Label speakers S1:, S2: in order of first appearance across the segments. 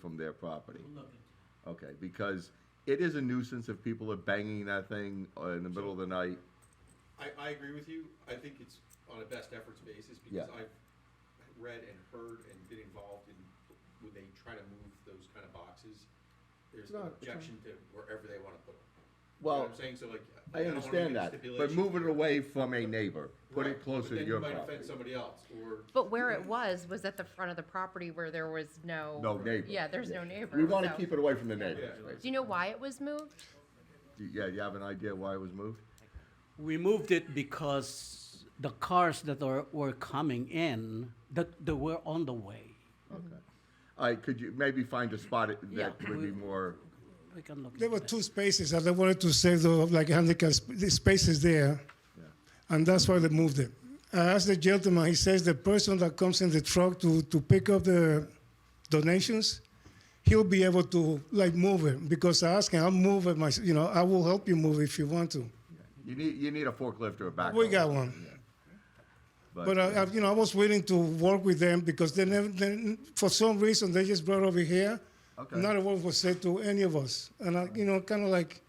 S1: from their property.
S2: We'll look into
S1: Okay, because it is a nuisance if people are banging that thing uh, in the middle of the night.
S3: I, I agree with you. I think it's on a best efforts basis because
S1: Yeah.
S3: I've read and heard and been involved in when they try to move those kind of boxes. There's
S1: It's
S3: an
S1: not- it's
S3: objection to wherever they want to put them.
S1: Well,
S3: I'm saying so like
S1: I
S3: don't wanna make
S1: understand
S3: a
S1: that, but
S3: stipulation
S1: move it
S3: here.
S1: away from a neighbor, put
S3: Right,
S1: it closer
S3: but
S1: to
S3: then
S1: your
S3: you might
S1: property.
S3: offend somebody else or
S4: But where it was, was at the front of the property where there was no.
S1: Mhm. No neighbor.
S4: Yeah, there's no neighbor.
S1: We wanna
S4: so-
S1: keep it away from the neighbors,
S3: Yeah.
S4: Do
S1: basically.
S4: you know why it was moved?
S1: Yeah, you have an idea why it was moved?
S5: We moved it because the cars that are, were coming in, that, that were on the way.
S1: Okay. All right, could you maybe find a spot it- that
S5: Yeah.
S1: would be more,
S5: We can look
S6: There
S5: into
S6: were
S5: that.
S6: two spaces that they wanted to save the like handicap sp- the spaces there, and that's why they moved it. I asked the gentleman. He says the person that comes in the truck to to pick up the donations, he'll be able to like move it because I asked him, I'll move it myself. You know, I will help you move if you want to.
S1: you need, you need a forklift or a backhoe.
S6: We got one. But uh, I, I, you know, I was willing to work with them because they never, they, for some reason, they just brought over here.
S1: Okay.
S6: Not a word was said to any of us, and I, you know, kind of like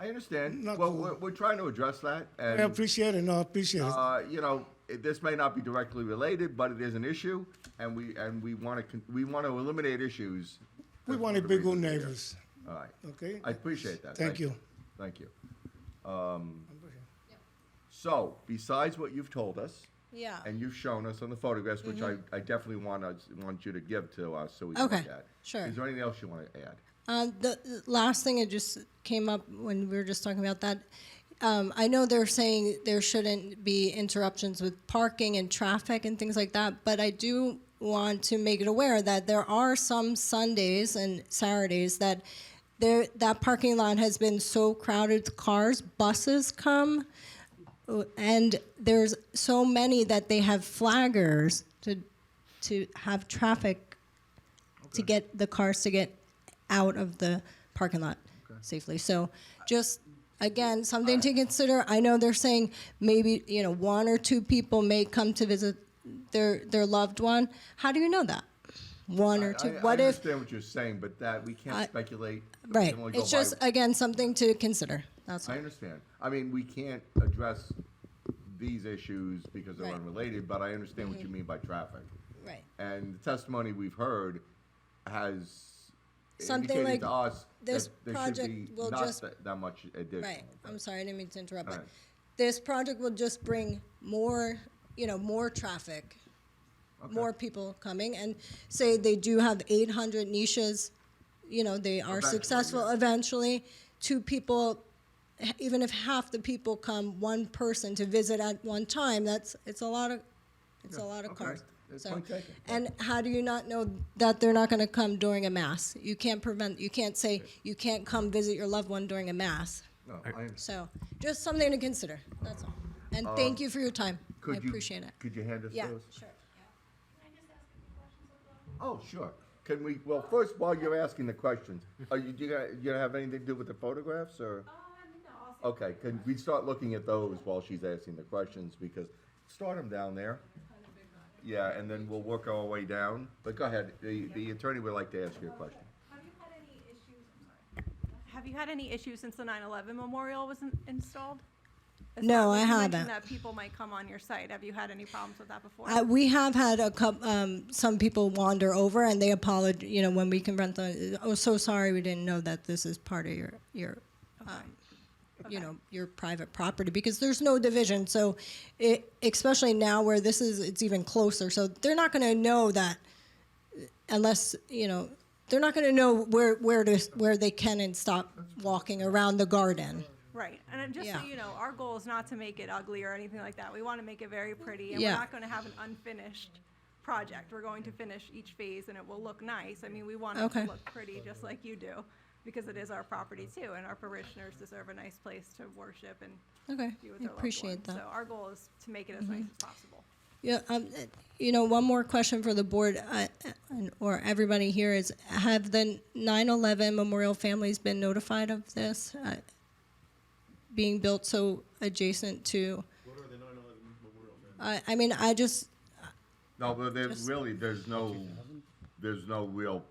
S1: I understand.
S6: Not
S1: Well,
S6: cool.
S1: we're, we're trying to address that
S6: I
S1: and,
S6: appreciate it. No, I appreciate it.
S1: uh, you know, it- this may not be directly related, but it is an issue and we, and we wanna, con- we wanna eliminate issues.
S6: We
S1: That's
S6: want
S1: one
S6: to
S1: of
S6: be
S1: the
S6: good
S1: reasons we're here.
S6: neighbors,
S1: All right.
S6: okay?
S1: I appreciate that.
S6: Thank you.
S1: Thank you. Um, So, besides what you've told us,
S7: Yeah. Mm-hmm.
S1: and you've shown us on the photographs, which I, I definitely want us, want you to give to us, so we can
S7: Okay,
S1: look at.
S7: sure.
S1: Is there anything else you want to add?
S7: Uh, the the last thing that just came up when we were just talking about that, um, I know they're saying there shouldn't be interruptions with parking and traffic and things like that, but I do want to make it aware that there are some Sundays and Saturdays that there that parking lot has been so crowded with cars, buses come, uh, and there's so many that they have flaggers to to have traffic to get the cars to get out of the parking lot safely. So just again, something to consider. I know they're saying maybe, you know, one or two people may come to visit their their loved one. How do you know that? One or two.
S1: I- I-
S7: what
S1: I
S7: if
S1: understand what you're saying, but that, we
S7: I-
S1: can't speculate. We
S7: right.
S1: can only go
S7: It's
S1: by-
S7: just again something to consider. That's all.
S1: I understand. I mean, we can't address these issues because they're
S7: Right. Mm-hmm.
S1: unrelated, but I understand what you mean by traffic.
S7: Right.
S1: And the testimony we've heard has
S7: Something
S1: indicated
S7: like
S1: to us
S7: this
S1: that there
S7: project
S1: should be
S7: will
S1: not
S7: just-
S1: that, that much additional.
S7: Right. I'm sorry, I didn't mean to interrupt.
S1: All
S7: But
S1: right.
S7: this project will just bring more, you know, more traffic, more people coming, and say they do have 800 niches. You know, they are
S1: Eventually,
S7: successful
S1: yeah.
S7: eventually. Two people, h- even if half the people come, one person to visit at one time. That's it's a lot of. It's
S1: Yeah,
S7: a lot of
S1: okay.
S7: cars.
S1: It's
S7: So,
S1: point taken.
S7: and how do you not know that they're not going to come during a mass? You can't prevent. You can't say you can't come visit your loved one during a mass.
S1: No, I understand.
S7: So just something to consider, that's all. And thank you for your time. I
S1: Uh, Could you-
S7: appreciate it.
S1: Could you hand us
S7: Yeah,
S1: those?
S7: sure.
S1: Oh, sure. Can we, well, first, while you're asking the questions, are you, do you, gonna- you gonna have anything to do with the photographs, or? Okay, can we start looking at those while she's asking the questions, because, start them down there. Yeah, and then we'll work our way down, but go ahead, the, the attorney would like to ask you a question.
S8: Have you had any issues, I'm sorry. Have you had any issues since the 9/11 memorial was in- installed? As
S7: No,
S8: far as
S7: I
S8: you mentioned
S7: haven't.
S8: That people might come on your site. Have you had any problems with that before?
S7: Uh, we have had a coup um, some people wander over and they apologize, you know, when we confront them, oh, so sorry, we didn't know that this is part of your, your, um, you know, your private property, because there's no division, so it, especially now where this is, it's even closer, so they're not gonna know that unless, you know, they're not gonna know where, where to, where they can and stop walking around the garden.
S8: Right, and I'm just so
S7: Yeah.
S8: you know, our goal is not to make it ugly or anything like that. We want to make it very pretty, and we're
S7: Yeah.
S8: not going to have an unfinished project. We're going to finish each phase, and it will look nice. I mean, we want it
S7: Okay.
S8: to look pretty, just like you do, because it is our property too, and our parishioners deserve a nice place to worship and
S7: Okay,
S8: be with
S7: I
S8: their
S7: appreciate
S8: loved ones.
S7: that. Mm-hmm.
S8: So our goal is to make it as nice as possible.
S7: Yeah, um, uh, you know, one more question for the board, uh, and- or everybody here is, have the 9/11 memorial families been notified of this? uh, Being built so adjacent to,
S3: What are the 9/11 memorial families?
S7: I, I mean, I just,
S1: No, but there,
S7: Just-
S1: really, there's no, there's no real